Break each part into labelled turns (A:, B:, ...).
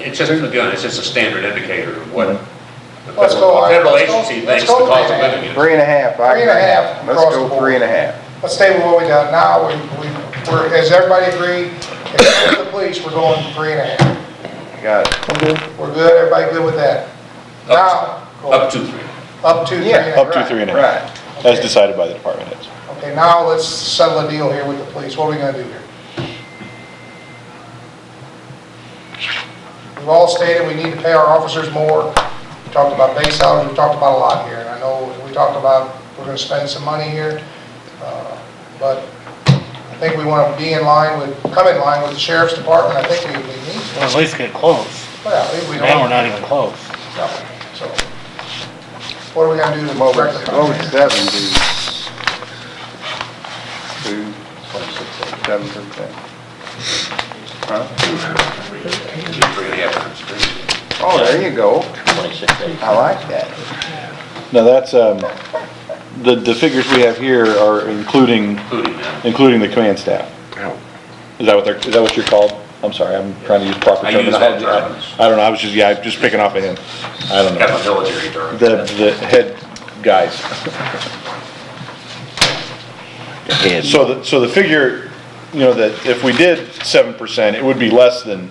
A: it's just, again, it's just a standard indicator of what the
B: Let's go,
A: federal- federal
B: let's go-
A: agency
B: let's
A: thinks the
B: go
A: cost of
B: with that.
A: living is.
C: Three and a half. I
B: Three and a
C: agree.
B: half across
C: Let's
B: the
C: go
B: board.
C: three and a half.
B: Let's stay with what we got now, we, we, we're, does everybody agree? Except the police, we're going three and a half.
C: Got it.
B: We're good, everybody good with that? Now, go
A: Up to three.
B: up to three and a half.
C: Yeah,
D: Up to three and a half,
C: Right.
D: as decided by the department heads.
B: Okay, now let's settle a deal here with the police, what are we gonna do here? We've all stated we need to pay our officers more, we talked about base salaries, we talked about a lot here, and I know we talked about we're gonna spend some money here, uh, but I think we wanna be in line with, come in line with the sheriff's department, I think we, we need,
E: Well, at least get close.
B: well, if we don't.
E: Now we're not even close.
B: No, so, what are we gonna do to
C: What
B: correct
C: would,
B: the
C: what would
B: contract?
C: seven do? Two, seven percent. Huh?
A: Three and a half times three.
C: Oh, there you go.
F: Twenty-six days.
C: I like that.
D: Now, that's, um, the, the figures we have here are including,
A: including that.
D: including the command staff.
A: Oh.
D: Is that what they're, is that what you're called? I'm sorry, I'm trying to use proper
A: I use all
D: terminology.
A: terms.
D: I don't know, I was just, yeah, I'm just picking off of him. I don't
A: Got my
D: know.
A: military term.
D: The, the head guys.
F: Head.
D: So the, so the figure, you know, that if we did seven percent, it would be less than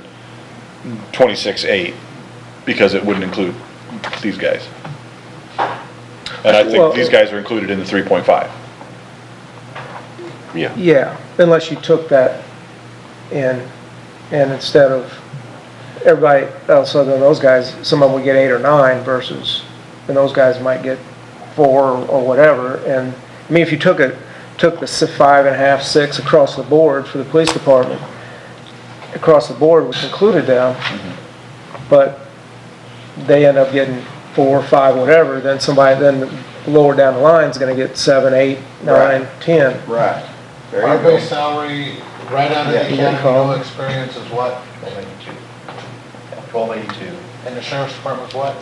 D: twenty-six eight, because it wouldn't include these guys. And I
G: Well-
D: think these guys are included in the three point five.
F: Yeah.
G: Yeah, unless you took that in, and instead of everybody else other than those guys, some of them would get eight or nine versus, and those guys might get four or whatever, and, I mean, if you took a, took the s- five and a half, six across the board for the police department, across the board, which included them, but they end up getting four, five, whatever, then somebody, then lower down the line's gonna get seven, eight, nine, ten.
C: Right. There
H: Our
C: you go.
H: base salary, right out of
C: Yeah,
H: the
C: you
H: academy,
G: call.
H: no experience is what? Twelve eighty-two. Twelve eighty-two. And the sheriff's department's what?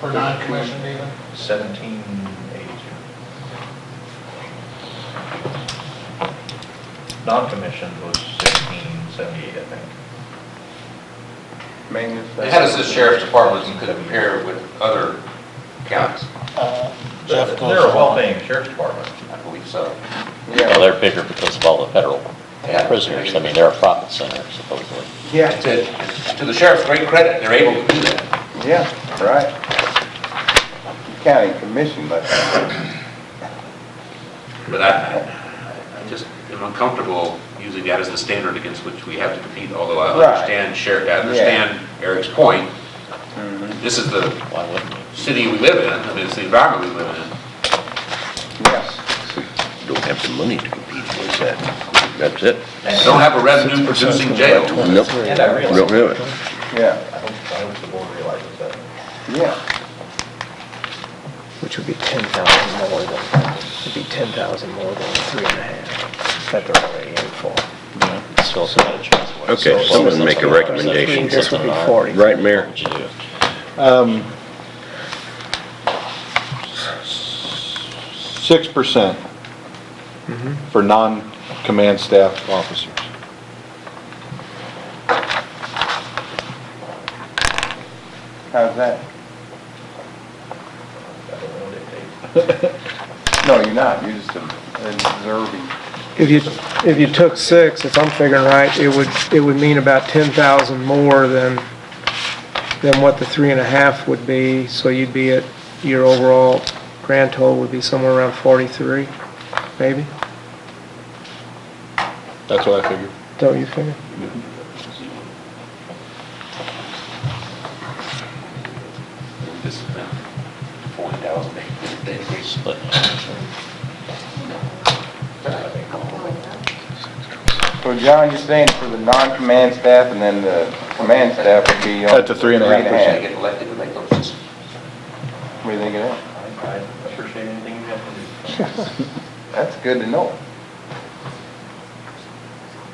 H: For non-commissioned even? Seventeen eighty-two. Non-commissioned was sixteen seventy-eight, I think.
C: Maintenance.
A: How does the sheriff's department compare with other counties?
E: Jeff goes along.
H: paying sheriff's department.
A: I believe so.
C: Yeah.
F: Well, they're bigger because of all the federal prisoners. I mean, they're a profit center supposedly.
C: Yeah,
A: To, to the sheriff's great credit, they're able to do that.
C: yeah, right. County commission, but
A: But I, I- I just am uncomfortable using that as the standard against which we have to compete, although I
C: Right.
A: understand, sheriff, I understand Eric's point.
C: Mm-hmm.
A: This is the
F: Why wouldn't you?
A: city we live in, I mean, it's the environment we live in.
C: yes,
F: Don't have the money to compete with that. That's it.
A: We don't have a revenue-producing jail.
F: Nope.
H: And I realize-
F: Don't have it.
C: yeah,
H: I hope, I hope the board realizes that.
C: yeah.
G: Which would be ten thousand more than, would be ten thousand more than three and a half that they're already in for.
F: Still not a chance.
I: Okay, someone make a recommendation.
G: This would be forty.
I: Right, Mayor?
F: What would you do?
D: Six percent
C: Mm-hmm.
D: for non-command staff officers.
C: How's that? No, you're not, you're just observing.
G: If you, if you took six, if I'm figuring right, it would, it would mean about ten thousand more than, than what the three and a half would be, so you'd be at, your overall grand total would be somewhere around forty-three, maybe?
D: That's what I figured.
G: Don't you figure?
A: This is now 40,000, they- they increase.
F: Split.
C: So John, you're saying for the non-command staff and then the command staff would be. on
D: At the three and a half
C: three
A: They
C: and a
A: get elected to make those decisions.
C: half. What do you think of that?
H: I appreciate anything you have to do.
C: That's good to know.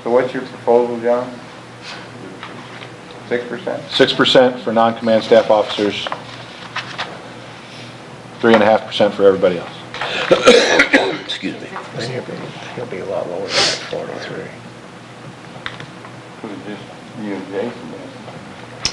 C: So what's your proposal, John? Six percent?
D: Six percent for non-command staff officers. Three and a half percent for everybody else.
F: Excuse me.
G: He'll be, he'll be a lot lower than forty-three.
C: Was it just you and Jason?